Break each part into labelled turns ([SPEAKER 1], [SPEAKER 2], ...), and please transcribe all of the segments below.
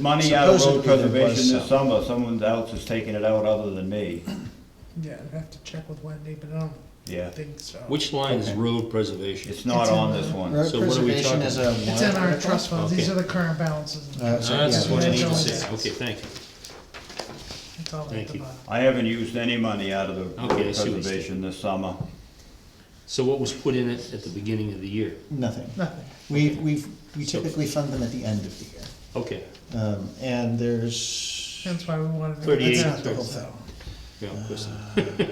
[SPEAKER 1] money out of road
[SPEAKER 2] Supposedly there was
[SPEAKER 1] preservation this
[SPEAKER 2] some.
[SPEAKER 1] summer, someone else is taking it out other than me,
[SPEAKER 3] Yeah, I'd have to check with Wendy, but I don't
[SPEAKER 1] yeah.
[SPEAKER 3] think so.
[SPEAKER 4] Which line is
[SPEAKER 2] Okay.
[SPEAKER 4] road preservation?
[SPEAKER 1] It's not
[SPEAKER 3] It's in
[SPEAKER 1] on
[SPEAKER 3] the-
[SPEAKER 1] this one.
[SPEAKER 2] Road
[SPEAKER 4] So what are we
[SPEAKER 2] preservation is a.
[SPEAKER 3] It's in our
[SPEAKER 2] warrant
[SPEAKER 3] trust funds, these
[SPEAKER 4] Okay.
[SPEAKER 3] are the current balances.
[SPEAKER 2] Uh, so,
[SPEAKER 4] Ah, That's
[SPEAKER 2] yeah,
[SPEAKER 4] what I
[SPEAKER 2] that's
[SPEAKER 4] need to
[SPEAKER 2] what it
[SPEAKER 4] say, okay, thank you.
[SPEAKER 3] It's all at
[SPEAKER 4] Thank
[SPEAKER 3] the
[SPEAKER 4] you.
[SPEAKER 3] bottom.
[SPEAKER 1] I haven't used any money out of the road
[SPEAKER 4] Okay, I see what you're saying.
[SPEAKER 1] preservation this summer.
[SPEAKER 4] So what was put in it at the beginning of the year?
[SPEAKER 2] Nothing.
[SPEAKER 3] Nothing.
[SPEAKER 2] We, we've, we typically fund them at the end of the year.
[SPEAKER 4] Okay,
[SPEAKER 2] Um, and there's, let
[SPEAKER 3] That's why we wanted. to-
[SPEAKER 4] 38.
[SPEAKER 3] That's not the whole
[SPEAKER 2] Thirty.
[SPEAKER 3] thing.
[SPEAKER 4] yeah, of course.
[SPEAKER 1] Uh,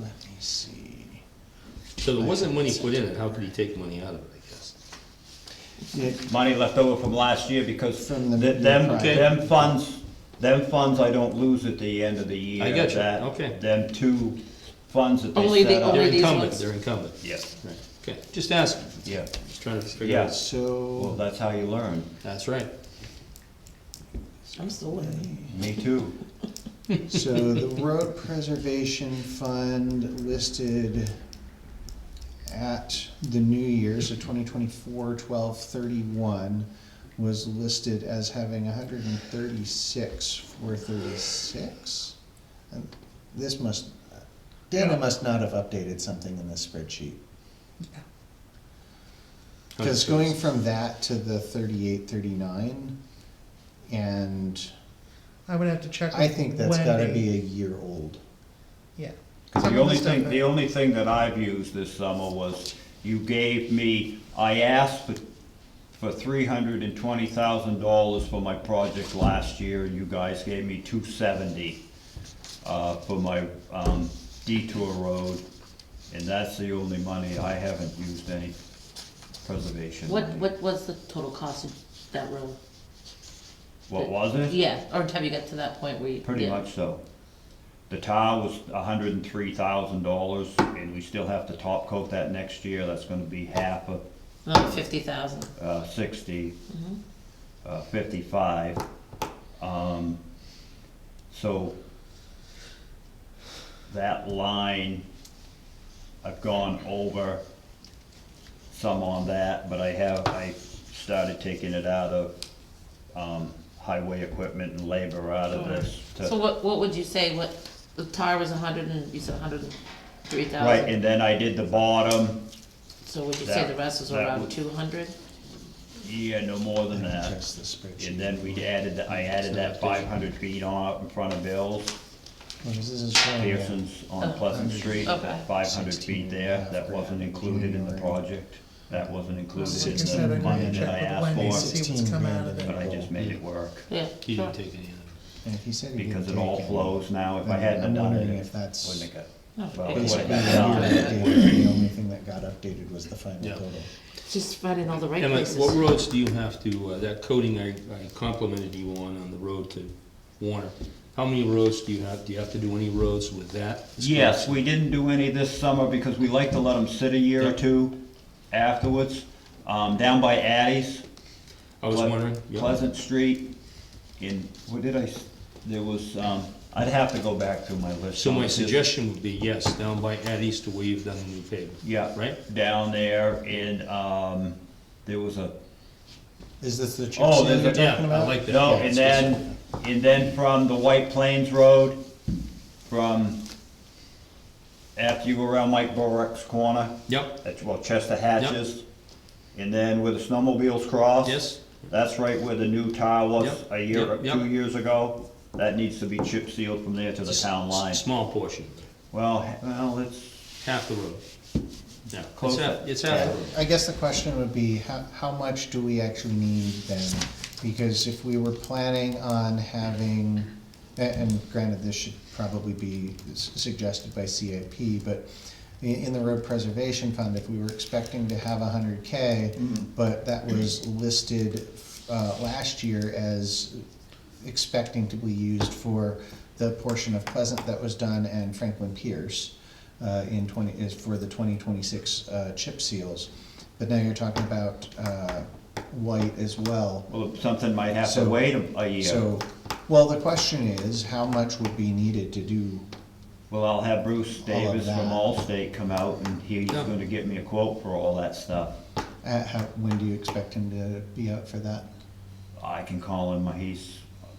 [SPEAKER 2] me see.
[SPEAKER 4] So there wasn't money put in it, how could he take money out of it, I guess?
[SPEAKER 2] Yeah,
[SPEAKER 1] Money left over from last year because
[SPEAKER 2] From the-
[SPEAKER 1] th- them,
[SPEAKER 2] Okay.
[SPEAKER 1] them funds, them funds I don't lose at the end of the year.
[SPEAKER 4] I got you.
[SPEAKER 1] That-
[SPEAKER 4] Okay.
[SPEAKER 1] Them two funds that
[SPEAKER 5] Only
[SPEAKER 1] they
[SPEAKER 5] the
[SPEAKER 1] set up.
[SPEAKER 5] Only
[SPEAKER 4] They're
[SPEAKER 5] these
[SPEAKER 4] incumbent,
[SPEAKER 5] ones?
[SPEAKER 4] they're incumbent.
[SPEAKER 1] Yes,
[SPEAKER 4] Right, okay, just asking,
[SPEAKER 1] yeah,
[SPEAKER 4] just trying to figure out.
[SPEAKER 1] well,
[SPEAKER 2] So,
[SPEAKER 1] that's how you learn,
[SPEAKER 4] That's right.
[SPEAKER 5] I'm still learning.
[SPEAKER 1] me too.
[SPEAKER 2] so the road preservation fund listed at the new year, so 2024 twelve thirty-one, was listed as having hundred and thirty-six, four thirty-six. And This must, Dana must not have updated something in this spreadsheet. Because going from that to the thirty-eight, thirty-nine, and
[SPEAKER 3] I would have to check.
[SPEAKER 2] I
[SPEAKER 3] with
[SPEAKER 2] think that's gotta
[SPEAKER 3] Wendy.
[SPEAKER 2] be a year old.
[SPEAKER 3] Yeah. Some
[SPEAKER 1] The
[SPEAKER 3] of
[SPEAKER 1] only
[SPEAKER 3] stuff
[SPEAKER 1] thing,
[SPEAKER 3] that-
[SPEAKER 1] the only thing that I've used this summer was, you gave me, I asked for, for three hundred and twenty thousand dollars for my project last year, and you guys gave me two seventy, uh, for my, um, detour road, and that's the only money, I haven't used any preservation
[SPEAKER 5] What,
[SPEAKER 1] money.
[SPEAKER 5] what was the total cost of that road?
[SPEAKER 1] What was it?
[SPEAKER 5] Yeah, or have you got to that point where you?
[SPEAKER 1] Pretty
[SPEAKER 5] yeah.
[SPEAKER 1] much so. The tile was hundred and three thousand dollars, and we still have to top coat that next year, that's gonna be half of
[SPEAKER 5] Another fifty thousand.
[SPEAKER 1] uh, sixty,
[SPEAKER 5] Mm-hmm.
[SPEAKER 1] uh, fifty-five. Um, so that line, I've gone over some on that, but I have, I started taking it out of, um, highway equipment and labor out of this
[SPEAKER 5] So
[SPEAKER 1] to,
[SPEAKER 5] what, what would you say, what, the tire was a hundred and, you said a hundred and three
[SPEAKER 1] right,
[SPEAKER 5] thousand?
[SPEAKER 1] and then I did the bottom,
[SPEAKER 5] So would you say
[SPEAKER 1] that-
[SPEAKER 5] the rest was
[SPEAKER 1] that
[SPEAKER 5] around
[SPEAKER 1] would-
[SPEAKER 5] two hundred?
[SPEAKER 1] yeah, no more than that.
[SPEAKER 2] Just the spreadsheet.
[SPEAKER 1] And then we added, I added that five hundred feet on up in front of Bill's.
[SPEAKER 2] Well, this is showing that
[SPEAKER 1] Pearson's on Pleasant Street,
[SPEAKER 5] Okay.
[SPEAKER 1] five hundred feet there, that wasn't included in the project. That wasn't included in the money that I asked for,
[SPEAKER 3] See what's come out of
[SPEAKER 1] but
[SPEAKER 3] it.
[SPEAKER 1] I just made it work.
[SPEAKER 5] Yeah.
[SPEAKER 4] He
[SPEAKER 5] sure.
[SPEAKER 4] didn't take any of
[SPEAKER 2] And he said he didn't
[SPEAKER 1] Because it all
[SPEAKER 2] take
[SPEAKER 1] flows now, if I
[SPEAKER 2] I'm-
[SPEAKER 1] hadn't
[SPEAKER 2] I'm
[SPEAKER 1] done it,
[SPEAKER 2] wondering
[SPEAKER 1] it
[SPEAKER 2] if that's
[SPEAKER 1] wouldn't have
[SPEAKER 5] No,
[SPEAKER 1] got, well, it
[SPEAKER 5] it's-
[SPEAKER 1] would have
[SPEAKER 2] Basically,
[SPEAKER 1] got
[SPEAKER 2] a year
[SPEAKER 1] done.
[SPEAKER 2] updated, the only thing that got updated was the final
[SPEAKER 4] Yeah.
[SPEAKER 2] total.
[SPEAKER 5] Just finding all the right
[SPEAKER 4] it. Emma, what
[SPEAKER 5] places.
[SPEAKER 4] roads do you have to, uh, that coating I I complimented you on, on the road to Warner? How many roads do you have, do you have to do any roads with that?
[SPEAKER 1] Yes, we didn't do any this summer because we like to let them sit a year or
[SPEAKER 4] Yeah.
[SPEAKER 1] two afterwards. Um, down by Addie's,
[SPEAKER 4] I was
[SPEAKER 1] Ple-
[SPEAKER 4] wondering. yeah.
[SPEAKER 1] Pleasant Street, in, what did I, s- there was, um, I'd have to go back through my list.
[SPEAKER 4] So my
[SPEAKER 1] Just-
[SPEAKER 4] suggestion would be, yes, down by Addie's to where you've done the new pavement.
[SPEAKER 1] Yeah.
[SPEAKER 4] Right?
[SPEAKER 1] Down there in, um, there was a,
[SPEAKER 2] Is this the chip
[SPEAKER 1] Oh,
[SPEAKER 2] seal
[SPEAKER 1] there's
[SPEAKER 2] you're
[SPEAKER 1] a-
[SPEAKER 4] yeah,
[SPEAKER 2] talking
[SPEAKER 4] I
[SPEAKER 2] about?
[SPEAKER 4] like that.
[SPEAKER 1] no,
[SPEAKER 4] Yeah,
[SPEAKER 1] and
[SPEAKER 4] it's
[SPEAKER 1] then, and then from the White Plains Road, from, after you go around Mike Borick's corner,
[SPEAKER 4] Yep,
[SPEAKER 1] that's, well, Chester Hatches, and then where the snowmobiles cross.
[SPEAKER 4] yes,
[SPEAKER 1] That's right where the new tile was
[SPEAKER 4] Yep,
[SPEAKER 1] a year, or
[SPEAKER 4] yep, yep.
[SPEAKER 1] two years ago. That needs to be chip sealed from there to the town line.
[SPEAKER 4] small portion,
[SPEAKER 1] Well, h- well, it's,
[SPEAKER 4] half the road. Yeah, it's
[SPEAKER 1] Close
[SPEAKER 4] half,
[SPEAKER 1] it.
[SPEAKER 4] it's half the
[SPEAKER 2] Yeah,
[SPEAKER 4] road.
[SPEAKER 2] I guess the question would be, how, how much do we actually need then? Because if we were planning on having, a- and granted, this should probably be s- suggested by CIP, but i- in the road preservation fund, if we were expecting to have a hundred K, but that was listed, uh, last year as expecting to be used for the portion of Pleasant that was done and Franklin Pierce uh, in twenty, is for the twenty twenty-six uh, chip seals. But now you're talking about uh, white as well.
[SPEAKER 1] well, something might have to
[SPEAKER 2] So-
[SPEAKER 1] wait a a year.
[SPEAKER 2] So, well, the question is, how much would be needed to do?
[SPEAKER 1] Well, I'll have Bruce
[SPEAKER 2] of
[SPEAKER 1] Davis from
[SPEAKER 2] that.
[SPEAKER 1] Allstate come out and he's
[SPEAKER 4] Yeah.
[SPEAKER 1] gonna get me a quote for all that stuff.
[SPEAKER 2] uh, how- When do you expect him to be out for that?
[SPEAKER 1] I can call him, he's